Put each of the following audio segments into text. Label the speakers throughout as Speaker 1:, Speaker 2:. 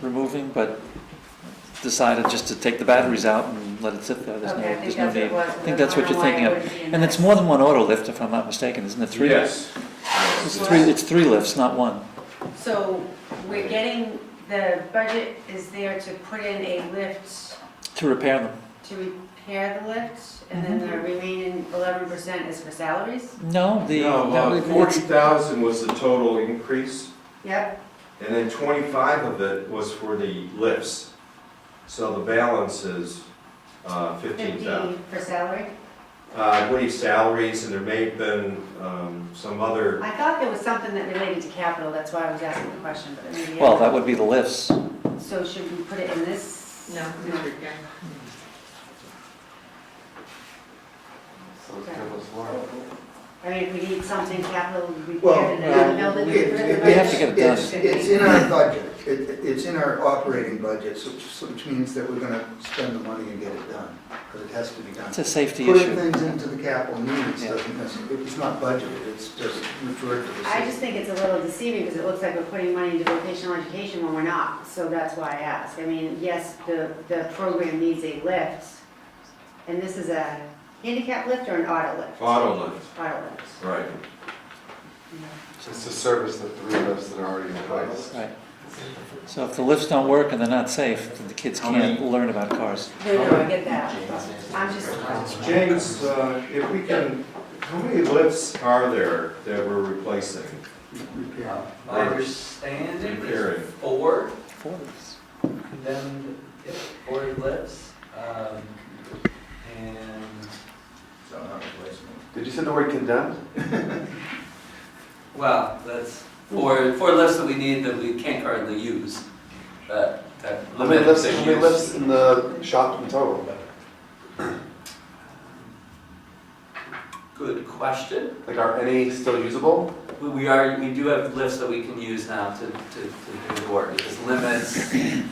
Speaker 1: removing, but decided just to take the batteries out and let it sit there, there's no,
Speaker 2: Okay, I
Speaker 1: there's
Speaker 2: think
Speaker 1: no
Speaker 2: that's what it
Speaker 1: need.
Speaker 2: was.
Speaker 1: I think that's what you're thinking of. And it's more than one auto lift, if I'm not mistaken, isn't it three?
Speaker 3: Yes.
Speaker 1: It's three, it's three lifts, not one.
Speaker 2: So we're getting, the budget is there to put in a lift
Speaker 1: To repair them.
Speaker 2: to repair the lift, and then
Speaker 1: Mm-hmm.
Speaker 2: the remaining eleven percent is for salaries?
Speaker 1: No, the. that
Speaker 3: No, uh,
Speaker 1: would-
Speaker 3: forty thousand was the total increase,
Speaker 2: Yep.
Speaker 3: and then twenty-five of it was for the lifts. So the balance is uh, fifteen thousand. Uh,
Speaker 2: Fifteen for salary?
Speaker 3: I believe salaries, and there may have been um, some other,
Speaker 2: I thought there was something that related to capital, that's why I was asking the question, but maybe.
Speaker 1: Well, that would be the lifts.
Speaker 2: So should we put it in this?
Speaker 4: No,
Speaker 2: No. I mean, if we need something capital repaired in another
Speaker 5: Well,
Speaker 2: building.
Speaker 5: it-
Speaker 2: get rid of the
Speaker 5: it-
Speaker 1: We have to
Speaker 2: budget.
Speaker 1: get it done.
Speaker 5: It's, it's in our budget, it, it's in our operating budget, so, so which means that we're gonna spend the money and get it done, because it has to be done.
Speaker 1: It's a safety
Speaker 5: Putting
Speaker 1: issue.
Speaker 5: things into the capital needs
Speaker 1: Yeah.
Speaker 5: doesn't, necess- it's not budgeted, it's just referred to the.
Speaker 2: I just think it's a little deceiving because it looks like we're putting money into vocational education when we're not. So that's why I ask. I mean, yes, the, the program needs a lift. And this is a handicap lift or an auto lift?
Speaker 3: auto lift.
Speaker 2: Auto lift.
Speaker 3: Right.
Speaker 6: It's a service that three of us that are already in place.
Speaker 1: Right. So if the lifts don't work and they're not safe, then the kids can't learn about cars.
Speaker 2: No, no, I get that. I'm just,
Speaker 3: James, uh, if we can, how many lifts are there that we're replacing?
Speaker 5: Repair.
Speaker 7: Understanding
Speaker 3: Repairing.
Speaker 7: is four,
Speaker 1: Forties.
Speaker 7: then if four lifts, um, and,
Speaker 5: So, not replacement.
Speaker 6: Did you say the word condemned?
Speaker 7: well, that's four, four lifts that we need that we can't currently use, that, that.
Speaker 6: How many lifts, how many
Speaker 7: use.
Speaker 6: lifts in the shop in total?
Speaker 7: Good question.
Speaker 6: Like, are any still usable?
Speaker 7: We- We are, we do have lifts that we can use now to, to, to do the work. It just limits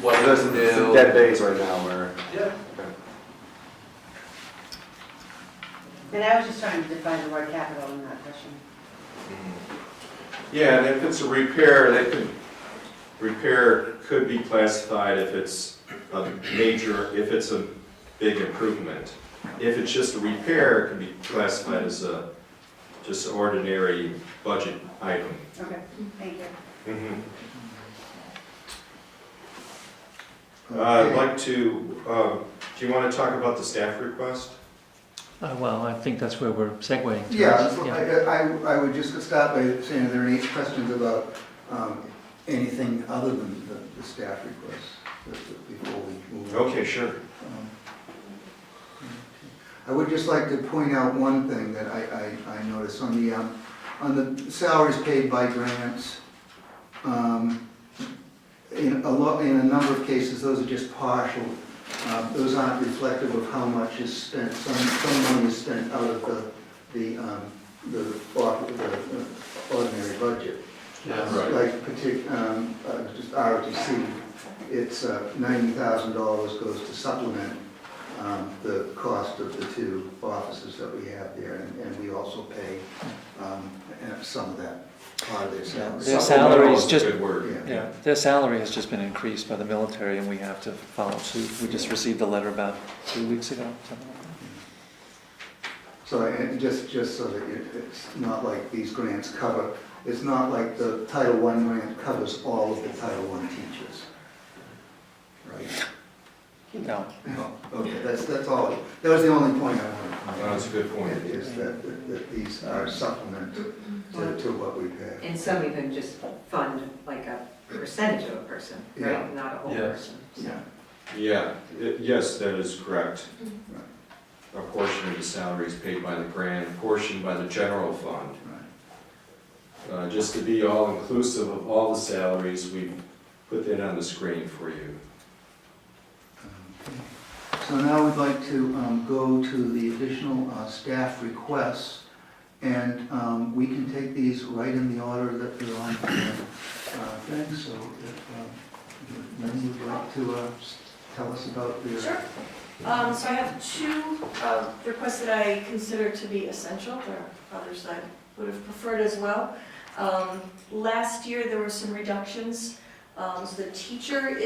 Speaker 7: what we
Speaker 6: There's
Speaker 7: can
Speaker 6: some
Speaker 7: do.
Speaker 6: some dead days right now where,
Speaker 7: Yeah.
Speaker 2: and I was just trying to define the word capital in that question.
Speaker 3: Mm. Yeah, and if it's a repair, that could, repair could be classified if it's a major, if it's a big improvement. If it's just a repair, it can be classified as a, just an ordinary budget item.
Speaker 2: Okay, thank you.
Speaker 3: Mm-hmm. Uh, I'd like to, uh, do you want to talk about the staff request?
Speaker 1: Uh, well, I think that's where we're segueing. to.
Speaker 5: Yeah, so I, I- I would just start by saying, are there any questions about um, anything other than the the staff requests that- before we move on?
Speaker 3: Okay, sure.
Speaker 5: Um, I would just like to point out one thing that I, I, I noticed on the, um, on the salaries paid by grants. um, In a lo, in a number of cases, those are just partial, uh, those aren't reflective of how much is spent, some, some money is spent out of the, the, um, the, or- the uh, ordinary budget.
Speaker 3: Right.
Speaker 5: Like partic, um, uh, just ROTC, it's uh, ninety thousand dollars goes to supplement um, the cost of the two offices that we have there, and- and we also pay um, uh, some of that part of their
Speaker 1: Their
Speaker 5: salary.
Speaker 3: Supplemental is
Speaker 1: salaries
Speaker 3: a
Speaker 1: just-
Speaker 3: Good word.
Speaker 5: Yeah.
Speaker 1: Yeah, their salary has just been increased by the military and we have to follow suit. We just received a letter about two weeks ago, something like that.
Speaker 5: So, and just, just so that it- it's not like these grants cover, it's not like the Title I grant covers all of the Title I teachers. Right?
Speaker 1: No,
Speaker 5: No, okay, that's, that's all, that was the only point I wanted to make.
Speaker 3: That's a good point.
Speaker 5: It is that, that- that these are supplement to, to what we pay.
Speaker 4: And some even just fund like a percentage of a person,
Speaker 5: Yeah.
Speaker 4: right, not a whole
Speaker 7: Yeah.
Speaker 4: person.
Speaker 5: Yeah.
Speaker 3: Yeah, i- yes, that is correct. A portion of the salary is paid by the grant, a portion by the general fund. Uh, Just to be all-inclusive of all the salaries, we put that on the screen for you.
Speaker 5: Um, So now we'd like to um, go to the additional uh, staff requests, and um, we can take these right in the order that they're on. uh, Thing, so uh, if Lynn would like to uh, s- tell us about their.
Speaker 8: Sure. Um, so I have two, uh, requests that I consider to be essential, there are others I would have preferred as well. Um, last year, there were some reductions, um, so the teacher